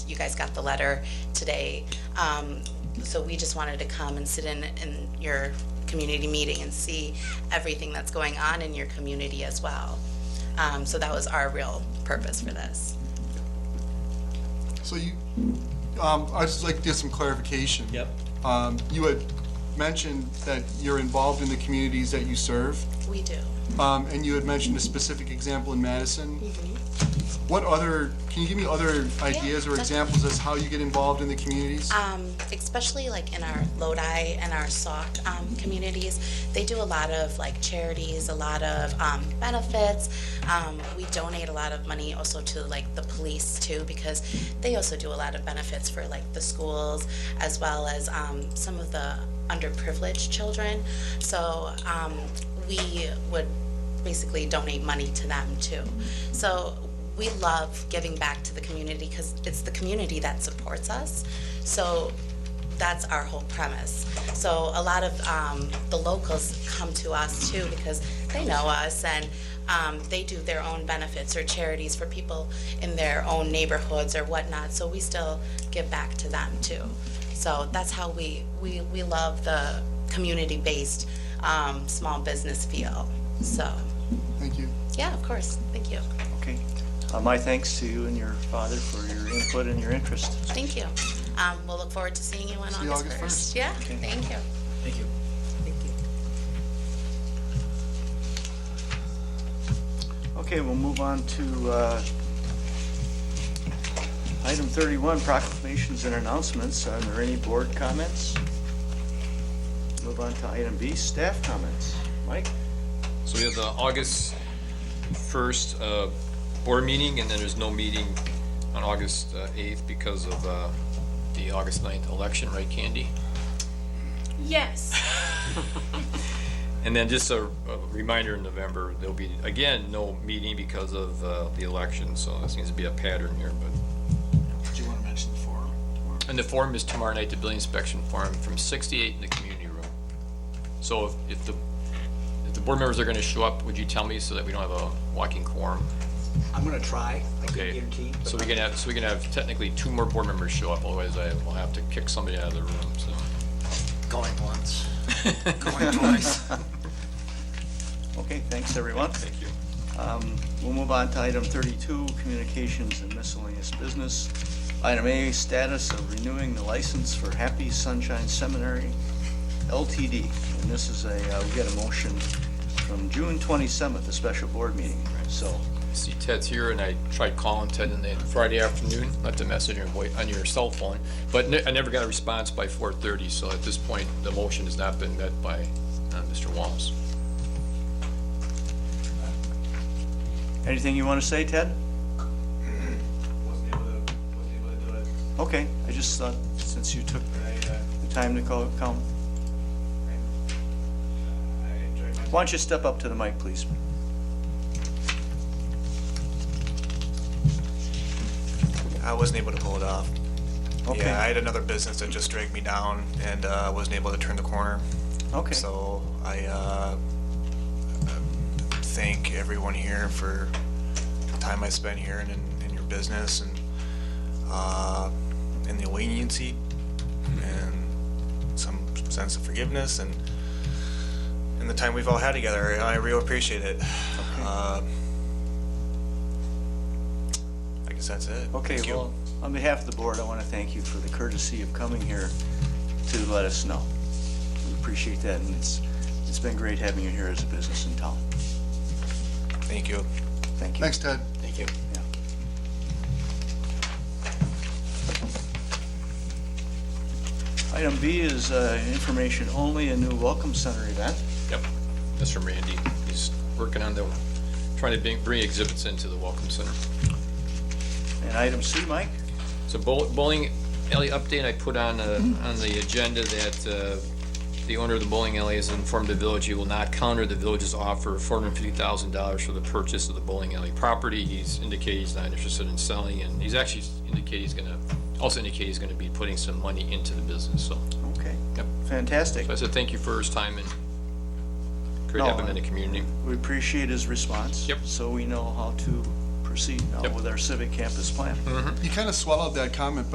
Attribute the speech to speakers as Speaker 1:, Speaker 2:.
Speaker 1: you guys got the letter today. Um, So we just wanted to come and sit in, in your community meeting and see everything that's going on in your community as well. Um, So that was our real purpose for this.
Speaker 2: So you, um, I'd just like to get some clarification.
Speaker 3: Yep.
Speaker 2: Um, you had mentioned that you're involved in the communities that you serve,
Speaker 1: We do.
Speaker 2: um, and you had mentioned a specific example in Madison. What other, can you give me other ideas or
Speaker 1: definitely.
Speaker 2: examples as how you get involved in the communities?
Speaker 1: um, especially like in our Lodi and our Sauk um, communities, they do a lot of like charities, a lot of um, benefits. Um, we donate a lot of money also to like the police too because they also do a lot of benefits for like the schools as well as um, some of the underprivileged children. So um, we would basically donate money to them too. So we love giving back to the community because it's the community that supports us. So that's our whole premise. So a lot of um, the locals come to us too because they know us and um, they do their own benefits or charities for people in their own neighborhoods or whatnot. So we still give back to them too. So that's how we we, we love the community-based um, small business feel. So
Speaker 2: Thank you.
Speaker 1: yeah, of course. Thank you.
Speaker 3: Okay.
Speaker 4: Uh, My thanks to you and your father for your input and your interest.
Speaker 1: Thank you. Um, we'll look forward to seeing you on
Speaker 2: See you
Speaker 1: August 1st.
Speaker 2: August 1st.
Speaker 1: Yeah,
Speaker 4: Okay.
Speaker 1: thank you.
Speaker 3: Thank you.
Speaker 4: Okay, we'll move on to uh, item 31, proclamations and announcements. Are there any board comments? Move on to item B, staff comments. Mike?
Speaker 5: So we have the August 1st uh, board meeting, and then there's no meeting on August uh, 8th because of uh, the August 9th election, right, Candy?
Speaker 6: Yes.
Speaker 5: And then just a a reminder, in November, there'll be, again, no meeting because of uh, the election, so there seems to be a pattern here, but.
Speaker 3: Do you want to mention the forum?
Speaker 5: And the forum is tomorrow night, the building inspection forum, from 6 to 8 in the community room. So if- if the, if the board members are going to show up, would you tell me so that we don't have a walking quorum?
Speaker 3: I'm going to try. I can't
Speaker 5: Okay,
Speaker 3: guarantee.
Speaker 5: so we can have, so we can have technically two more board members show up, otherwise I will have to kick somebody out of the room, so.
Speaker 3: Going once.
Speaker 4: Okay, thanks, everyone.
Speaker 5: Thank you.
Speaker 4: Um, We'll move on to item 32, communications and miscellaneous business. Item A, status of renewing the license for Happy Sunshine Seminary LTD. And this is a, uh, we get a motion from June 27th, a special board meeting. So,
Speaker 5: See Ted's here, and I tried calling Ted on the Friday afternoon, left a message on your, voi- on your cell phone, but ne- I never got a response by four thirty, so at this point, the motion has not been met by, uh, Mr. Wallace.
Speaker 4: anything you want to say, Ted?
Speaker 7: wasn't able to, wasn't able to do it.
Speaker 4: Okay, I just thought, since you took
Speaker 7: I, uh,
Speaker 4: the time to call, come,
Speaker 7: uh, I enjoyed my.
Speaker 4: why don't you step up to the mic, please?
Speaker 7: I wasn't able to pull it off.
Speaker 4: Okay.
Speaker 7: Yeah, I had another business that just dragged me down and, uh, wasn't able to turn the corner.
Speaker 4: Okay.
Speaker 7: So I, uh, thank everyone here for the time I spent here and in, in your business and, uh, and the leniency
Speaker 4: Mm-hmm.
Speaker 7: and some sense of forgiveness and, and the time we've all had together. I really appreciate it. Uh, I guess that's it.
Speaker 4: Okay,
Speaker 7: Thank you.
Speaker 4: well, on behalf of the board, I want to thank you for the courtesy of coming here to let us know. We appreciate that, and it's, it's been great having you here as a business in town.
Speaker 7: Thank you.
Speaker 4: Thank you.
Speaker 2: Thanks, Ted.
Speaker 7: Thank you.
Speaker 4: Yeah. Item B is uh, information only, a new welcome center event.
Speaker 5: Yep, that's from Randy, he's working on the, trying to bring, bring exhibits into the Welcome Center.
Speaker 4: And item C, Mike?
Speaker 5: So bowl- bowling alley update, I put on, uh, on the agenda that uh, the owner of the bowling alley has informed the village he will not counter the village's offer of $450,000 for the purchase of the bowling alley property. He's indicated he's not interested in selling, and he's actually indicated he's gonna, also indicated he's gonna be putting some money into the business, so.
Speaker 4: Okay,
Speaker 5: Yep.
Speaker 4: fantastic.
Speaker 5: So I said, thank you for his time and great
Speaker 4: No,
Speaker 5: having him in the community.
Speaker 4: We appreciate his response.
Speaker 5: Yep.
Speaker 4: So we know how to
Speaker 8: proceed now
Speaker 9: Yep.
Speaker 8: with our civic campus plan.
Speaker 4: You kind of swallowed that comment,